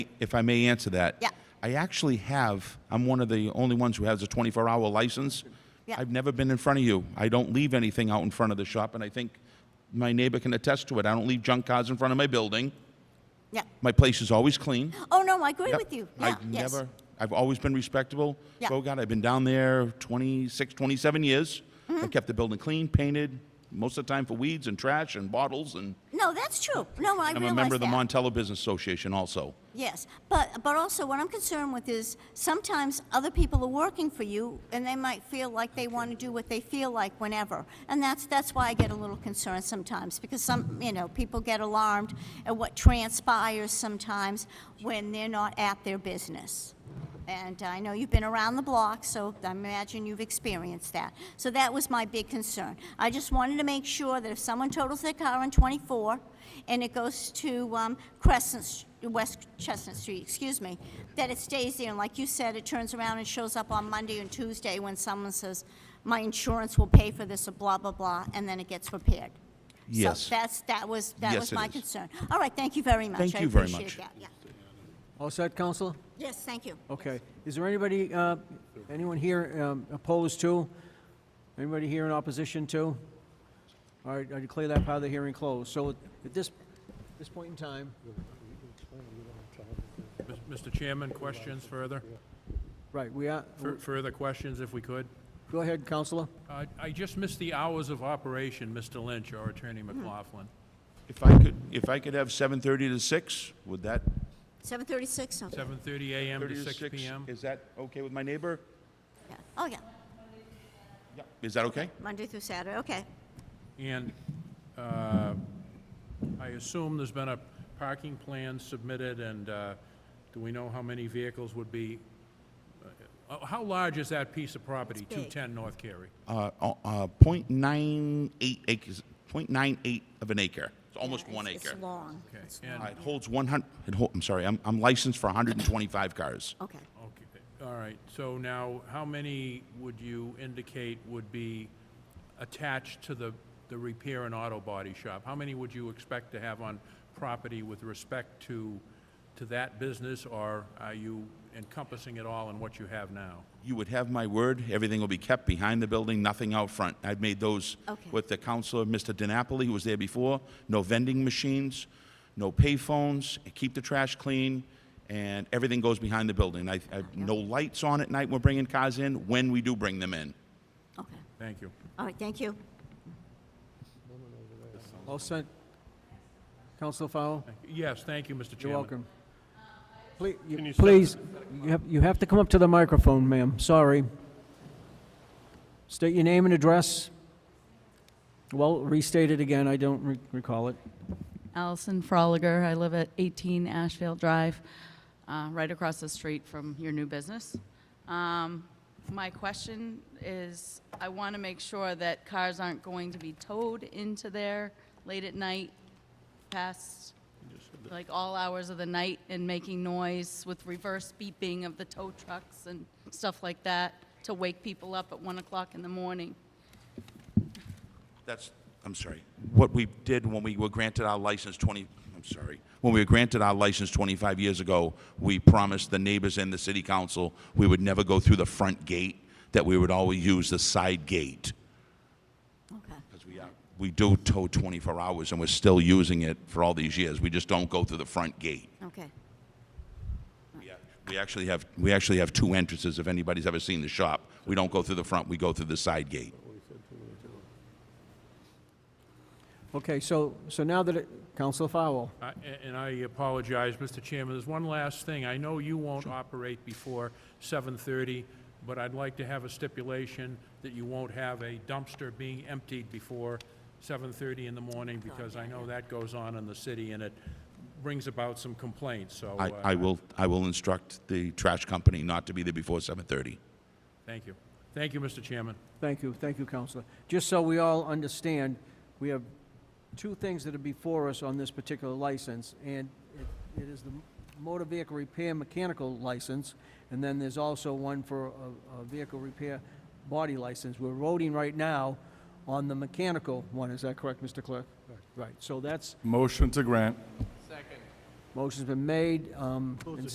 if I may answer that. Yeah. I actually have, I'm one of the only ones who has a 24-hour license. Yeah. I've never been in front of you. I don't leave anything out in front of the shop, and I think my neighbor can attest to it. I don't leave junk cars in front of my building. Yeah. My place is always clean. Oh, no, I agree Yep. with you. Yeah, I've yes. never, I've always been respectable. Yeah. Bogart, I've been down there 26, 27 years. Mm-hmm. I kept the building clean, painted, most of the time for weeds and trash and bottles, and No, that's true. No, I I'm realize a member of the that. Montello Business Association also. Yes, but, but also what I'm concerned with is sometimes other people are working for you and they might feel like they want to do what they feel like whenever. And that's, that's why I get a little concerned sometimes because some, you know, people get alarmed at what transpires sometimes when they're not at their business. And I know you've been around the block, so I imagine you've experienced that. So that was my big concern. I just wanted to make sure that if someone totals their car on 24 and it goes to um, Crescent, Sh- West Chestnut Street, excuse me, that it stays there. And like you said, it turns around and shows up on Monday and Tuesday when someone says, my insurance will pay for this, or blah, blah, blah, and then it gets repaired. Yes. So that's, that was, that Yes, was it my is. concern. All right, thank you very much. Thank I you very appreciate much. that, yeah. All set, Counselor? Yes, thank you. Okay. Is there anybody, uh, anyone here um, opposed to? Anybody here in opposition to? All right, I declare that part of the hearing closed. So at this, this point in time, Mis- Mr. Chairman, questions further? right, we are, Fur- Further questions, if we could? go ahead, Counselor. Uh, I just missed the hours of operation, Mr. Lynch or Attorney McLaughlin. If I could, if I could have 7:30 to 6, would that? 7:36, okay. 7:30 a.m. 30 to 6 p.m.? Is that okay with my neighbor? Yeah. Oh, yeah, Is that okay? Monday through Saturday, okay. And uh, I assume there's been a parking plan submitted, and uh, do we know how many vehicles would be? uh, uh, How large is that piece of property, big. 210 North Carey? Uh, uh, uh, .98 acres, .98 of an acre. It's almost Yeah, one it's- acre. It's long. Okay, It's and- Uh, long. It holds 100, it hol- I'm sorry, I'm I'm licensed for 125 cars. Okay. Okay, all right, so now, how many would you indicate would be attached to the, the repair and auto body shop? How many would you expect to have on property with respect to, to that business, or are you encompassing it all in what you have now? You would have my word, everything will be kept behind the building, nothing out front. I've made those Okay. with the counselor, Mr. DiNapoli, who was there before. No vending machines, no payphones, keep the trash clean, and everything goes behind the building. I, I, no lights on at night we're bringing cars in, when we do bring them in. Okay. Thank you. All right, thank you. All set? Counselor Fowle? Yes, thank you, Mr. Chairman. You're welcome. Please, Can you step please, you have, you have to come up to the microphone, ma'am, sorry. State your name and address. Well, restate it again, I don't re- recall it. Allison Froliger. I live at 18 Ashfield Drive, uh, right across the street from your new business. Um, My question is, I want to make sure that cars aren't going to be towed into there late at night, past, like, all hours of the night, and making noise with reverse beeping of the tow trucks and stuff like that to wake people up at 1 o'clock in the morning. That's, I'm sorry, what we did when we were granted our license 20, I'm sorry, when we were granted our license 25 years ago, we promised the neighbors and the city council we would never go through the front gate, that we would always use the side gate. Okay. Because we are, we do tow 24 hours, and we're still using it for all these years. We just don't go through the front gate. Okay. We ac- We actually have, we actually have two entrances, if anybody's ever seen the shop. We don't go through the front, we go through the side gate. Okay, so, so now that it, Counselor Fowle, I- a- And I apologize, Mr. Chairman, there's one last thing. I know you won't operate before 7:30, but I'd like to have a stipulation that you won't have a dumpster being emptied before 7:30 in the morning, Oh, because I know that goes on in the city, and it brings about some complaints, so... I, uh, I will, I will instruct the trash company not to be there before 7:30. Thank you. Thank you, Mr. Chairman. thank you, thank you, Counselor. Just so we all understand, we have two things that are before us on this particular license, and it- it is the motor vehicle repair mechanical license, and then there's also one for a, a vehicle repair body license. We're voting right now on the mechanical one, is that correct, Mr. Clerk? Right, so that's, Motion to grant. Motion's been made um, and